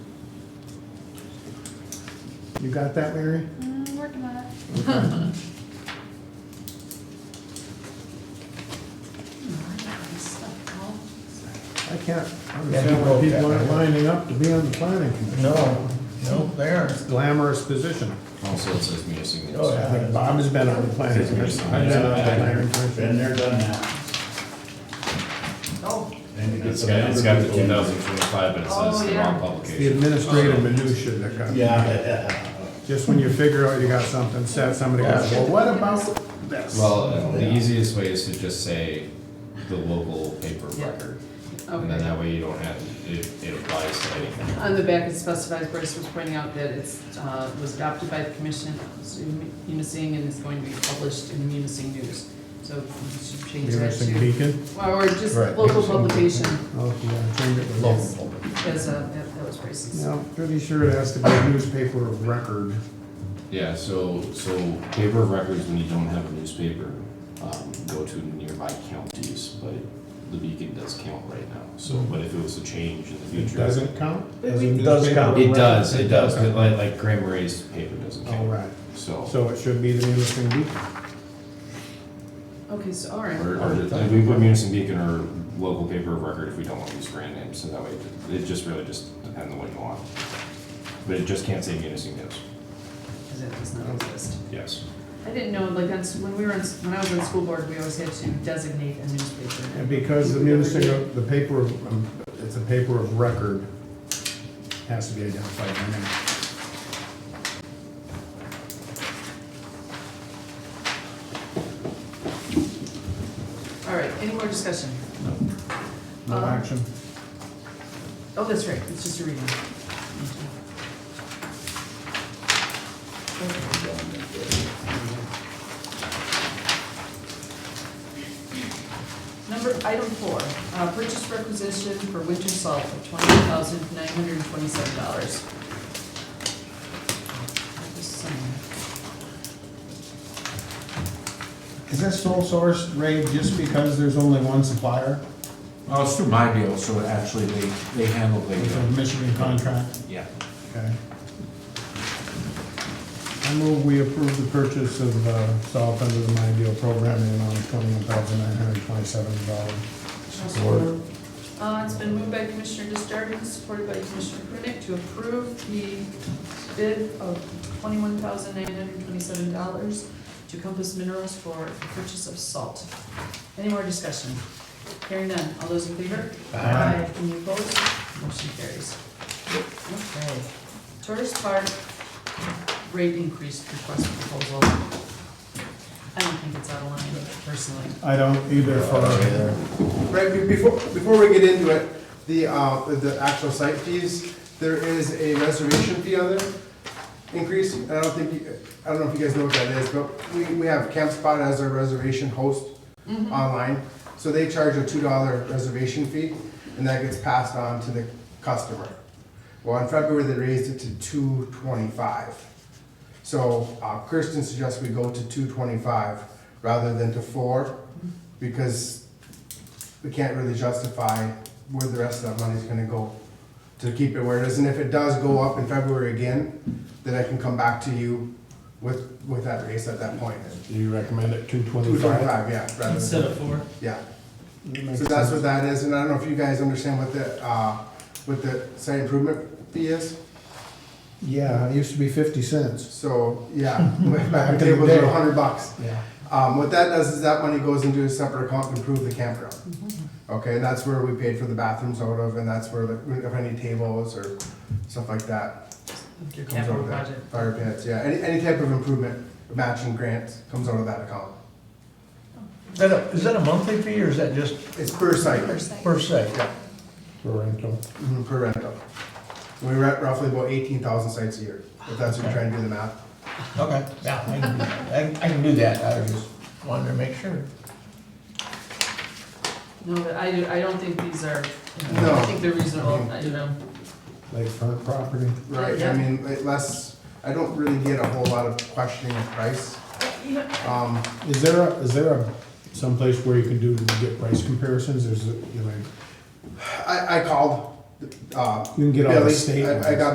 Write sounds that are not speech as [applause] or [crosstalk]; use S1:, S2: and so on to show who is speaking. S1: You got that,
S2: [laughs]
S1: Mary?
S3: Mm, working on it.
S1: Okay. I can't understand why people aren't lining up to be on the planning commission.
S4: No, no, they aren't.
S1: Glamorous position.
S5: Also, it says munising.
S4: Oh,
S1: I
S4: yeah.
S1: think Bob has been on the planning commission. I've been on the planning
S6: Been
S1: commission.
S6: there, done that.
S2: Oh,
S6: Then you get
S5: It's
S6: some
S5: got, it's got the
S6: other
S5: two
S6: people.
S5: thousand twenty-five, but it
S2: Oh,
S5: says the
S2: yeah.
S5: wrong
S1: The
S5: publication.
S1: administrative minutia that comes.
S6: Yeah.
S1: Just when you figure out you got something set, somebody goes, well, what about this?
S5: Well, the
S6: Yeah.
S5: easiest way is to just say the local paper
S2: Yeah.
S5: record, and then
S2: okay.
S5: that way you don't have, it, it applies to anything.
S2: On the back, it specifies, Bryce was pointing out that it's, uh, was adopted by the commission, it's in Munising, and it's going to be published in Munising News. So we should change that
S1: Munising
S2: to,
S1: Beacon?
S2: or just
S4: Right.
S2: local publication,
S1: Oh, if you want to change it to
S2: Yes.
S1: local.
S2: because uh, that that was Bryce's.
S1: No, pretty sure it has to be a newspaper of record.
S5: Yeah, so, so paper of records, when you don't have a newspaper, um, go to nearby counties, but the Beacon does count right now, so, but if it was to change in the future.
S1: It doesn't count?
S2: But
S1: As a
S2: we-
S4: It does
S1: newspaper
S4: count.
S1: of
S5: It does,
S1: record?
S5: it does, but like, like Graham Ray's paper doesn't
S1: All
S5: count,
S1: Oh, right,
S5: so.
S1: so it should be the Munising Beacon.
S2: Okay, so, all
S5: Or,
S2: right.
S5: or just- like, we put Munising Beacon or local paper of record if we don't want to use brand names, so that way, it just really just depends on what you want. But it just can't say Munising News,
S2: Because that does not exist.
S5: yes.
S2: I didn't know, like, on s- when we were, on s- when I was on school board, we always had to designate a newspaper.
S1: And because the munising, the paper, of- um, it's a paper of record, has to be identified by name.
S2: All right, any more discussion?
S7: Uh-huh.
S1: No
S2: Um,
S1: action.
S2: Oh, that's right, it's just a reading. Number, item four, uh, purchase requisition for winter salt of twenty-eight thousand nine hundred and twenty-seven dollars.
S4: Is that sole source, Ray, just because there's only one supplier
S8: Well, Oh, it's through my deal, so actually they, they handle
S4: with
S8: the,
S4: a Michigan contract?
S8: yeah.
S1: Okay. I move we approve the purchase of uh, salt under the My Deal program in the amount of twenty-one thousand nine hundred twenty-seven dollars. Support.
S2: Uh, it's been moved by Commissioner Justardens, supported by Commissioner Prunick, to approve the bid of twenty-one thousand nine hundred twenty-seven dollars to Compass Minerals for the purchase of salt. Any more discussion? Hearing none, all those in favor? Aye. Any opposed? Motion carries. Okay. Tourist Park rate increase request proposal. I don't think it's out of line personally.
S1: I don't either for,
S7: Right, be- before, before we get into it, the, uh, the actual site fees, there is a reservation fee on there increase. I don't think, you- I don't know if you guys know what that is, but we, we have Campspot as our reservation host online. So they charge a two dollar reservation fee and that gets passed on to the customer. Well, in February, they raised it to two twenty-five. So uh, Kirsten suggests we go to two twenty-five rather than to four because we can't really justify where the rest of that money's gonna go to keep it where it is, and if it does go up in February again, then I can come back to you with, with that raise at that point.
S1: do you recommend it two
S7: Two
S1: twenty-five?
S7: twenty-five, yeah, rather than,
S4: of four.
S7: yeah, so that's what that is, and I don't know if you guys understand what the, uh, what the site improvement fee is,
S1: Yeah, it used to be fifty cents.
S7: so, [laughs] yeah,
S1: [laughs]
S7: back
S1: Back in
S7: at
S1: the
S7: tables are
S1: day.
S7: a hundred bucks.
S1: Yeah.
S7: Um, what that does is that money goes into a separate account to improve the campground. Okay, and that's where we paid for the bathrooms out of, and that's where like if any tables or stuff like that
S2: Your
S7: comes out
S2: capital
S7: of that.
S2: project.
S7: Fire pits, yeah, any, any type of improvement, matching grants comes out of that account.
S4: Is that a- is that a monthly fee or is that just
S7: It's per site,
S4: per se?
S1: For rental.
S7: mhm, per rental. We rent roughly about eighteen thousand sites a year, if that's what you're trying to do the math.
S4: Okay, yeah, I can do that. I can, I can do that, I was just wanted to make sure.
S2: No, but I, I don't think these are, you know, I
S7: No.
S2: think they're reasonable, you know.
S1: Lakefront property.
S7: Right,
S2: Yeah.
S7: I mean, like less, I don't really get a whole lot of questioning of price. Um,
S1: Is there a, is there a, someplace where you can do, get price comparisons, is it, you know,
S7: I, I called, uh.
S1: You can get all the
S7: Billy.
S1: state
S7: I- I
S1: ones.
S7: got